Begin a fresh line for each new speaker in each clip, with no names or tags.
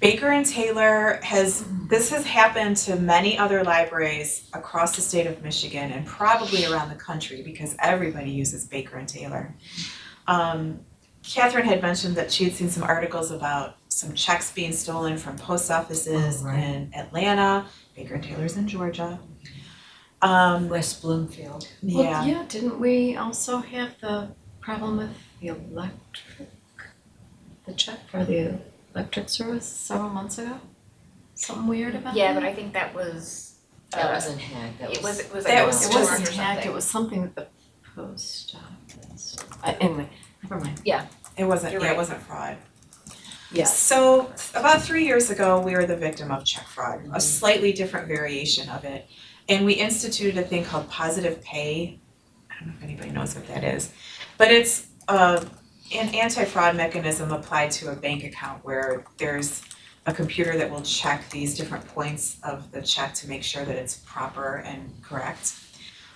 Baker and Taylor has, this has happened to many other libraries across the state of Michigan and probably around the country because everybody uses Baker and Taylor. Um, Catherine had mentioned that she had seen some articles about some checks being stolen from post offices
Oh, right.
in Atlanta, Baker and Taylor's in Georgia. Um,
West Bloomfield.
Well,
yeah,
yeah, didn't we also have the problem with the electric, the check for the electric service several months ago? Something weird about that?
Yeah, but I think that was.
That
uh,
wasn't hacked, that was.
It was, it was
That
like a
was
storm
It
or
wasn't hacked, it
something.
was something with the post office. Uh, anyway, never mind.
it wasn't,
You're
yeah, it
right.
wasn't fraud.
Yes.
So about three years ago, we were the victim of check fraud, a slightly different variation of it. And we instituted a thing called positive pay. I don't know if anybody knows what that is. But it's uh an anti-fraud mechanism applied to a bank account where there's a computer that will check these different points of the check to make sure that it's proper and correct.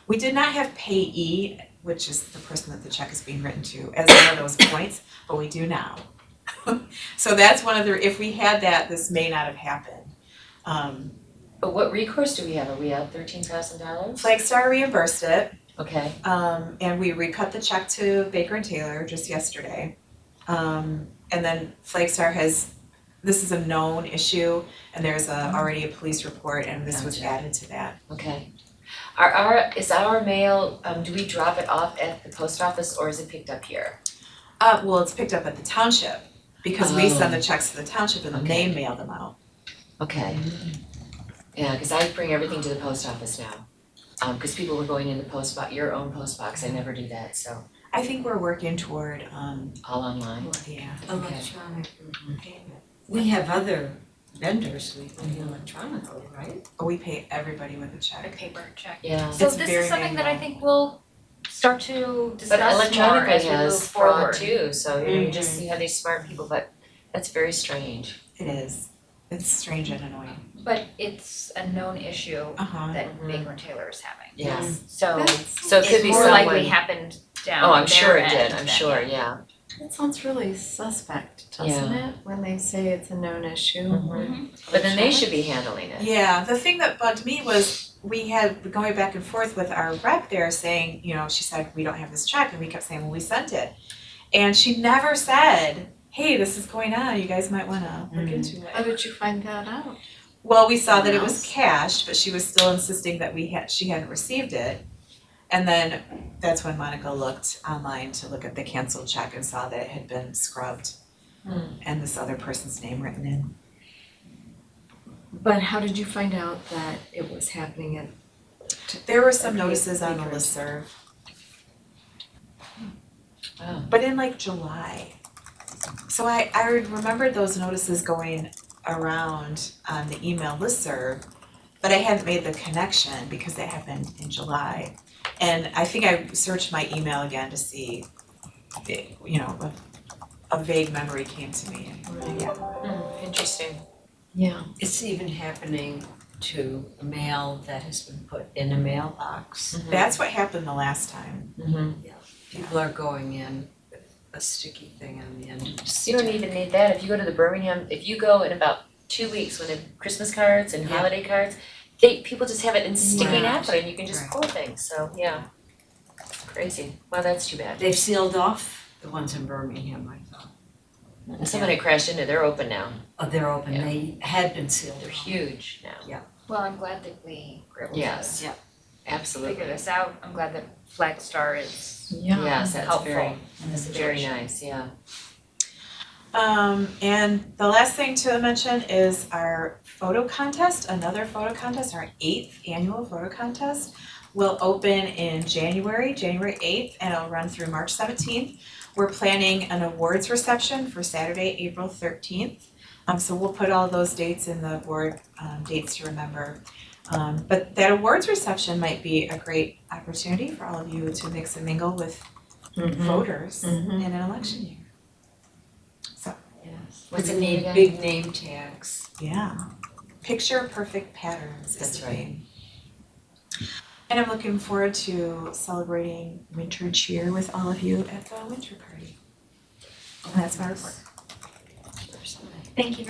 We did not have payee, which is the person that the check is being written to, as one of those points, but we do now. So that's one of the, if we had that, this may not have happened. Um,
But what recourse do we have? Are we out thirteen thousand dollars?
Flagstar reimbursed it,
Okay,
um, and we recut the check to Baker and Taylor just yesterday. Um, and then Flagstar has, this is a known issue, and there's a, already a police report, and this was
Gotcha.
added to that.
okay. Are our, is our mail, um, do we drop it off at the post office or is it picked up here?
Uh, well, it's picked up at the township, because we send
Oh.
the checks to the township and then
Okay.
they mail them out.
Okay. Yeah, cause I bring everything to the post office now. Um, cause people were going in the post box, your own post box, I never do that, so
I think we're working toward, um,
all online.
yeah.
Okay.
Electronic payment. We have other vendors we pay electronically, right?
We pay everybody with a
A
check.
paper check.
Yeah,
So
It's
this
very
is something that I
manual.
think we'll start to
but
discuss more
electronic
as we move
has fraud
forward.
too, so you know, you just see how these smart people, but that's very strange.
It is, it's strange and annoying.
But it's a known issue
Uh-huh.
that
Mhm.
Baker and Taylor is having.
Yes.
So
So it could
it
be
more
someone.
likely happened down
Oh, I'm sure
their
it did,
end
I'm
than-
sure, yeah.
That sounds really suspect, doesn't it? When they say it's a known issue or.
Mm-hmm. But then they should be handling it.
Yeah, the thing that bugged me was we had going back and forth with our rep there saying, you know, she said, we don't have this check. And we kept saying, well, we sent it. And she never said, hey, this is going on. You guys might want to look
Mm.
into
How
it.
did you find that out?
Well, we saw that it
Someone
was
else?
cashed, but she was still insisting that we had, she hadn't received it. And then that's when Monica looked online to look at the canceled check and saw that it had been scrubbed
Hmm.
and this other person's name written in.
But how did you find out that it was happening at?
There were some
Okay,
notices on the listserv,
secret.
Oh.
but in like July. So I I remembered those notices going around on the email listserv, but I hadn't made the connection because they happened in July. And I think I searched my email again to see, it- you know, a a vague memory came to me. Yeah,
Hmm, Interesting.
Yeah,
It's even happening to mail that has been put in a mailbox.
that's what happened the last time.
Mhm.
People are going in with a sticky thing on the end of the
You don't even need that. If you go to the Birmingham, if you go in about two weeks when the Christmas cards and
Yeah.
holiday cards, they, people just have it in sticky
Right.
napkin and you can just
Right.
pull things, so yeah. Crazy. Well, that's too bad.
They've sealed off the ones in Birmingham, I thought.
And someone had crashed into, they're open now.
Oh, they're open,
Yeah.
they had been sealed
They're
off.
huge now.
Well, I'm glad that we were able
Yes.
to
Yeah.
Absolutely.
figure this out. I'm glad that Flagstar is
yeah.
Yes, that's
helpful
very,
in this
that's very
situation.
nice, yeah.
Um, and the last thing to mention is our photo contest, another photo contest, our eighth annual photo contest will open in January, January eighth, and it'll run through March seventeenth. We're planning an awards reception for Saturday, April thirteenth. Um, so we'll put all those dates in the board, um, dates to remember. Um, but that awards reception might be a great opportunity for all of you to mix and mingle with
Mm-hmm.
Mm-hmm. voters in
Mhm.
an election year.
What's it
We
need
need
again?
big name tags.
Yeah. Picture perfect patterns is
That's
the
right.
theme. And I'm looking forward to celebrating winter cheer with all of you at the winter party. And that's my report.
Thank you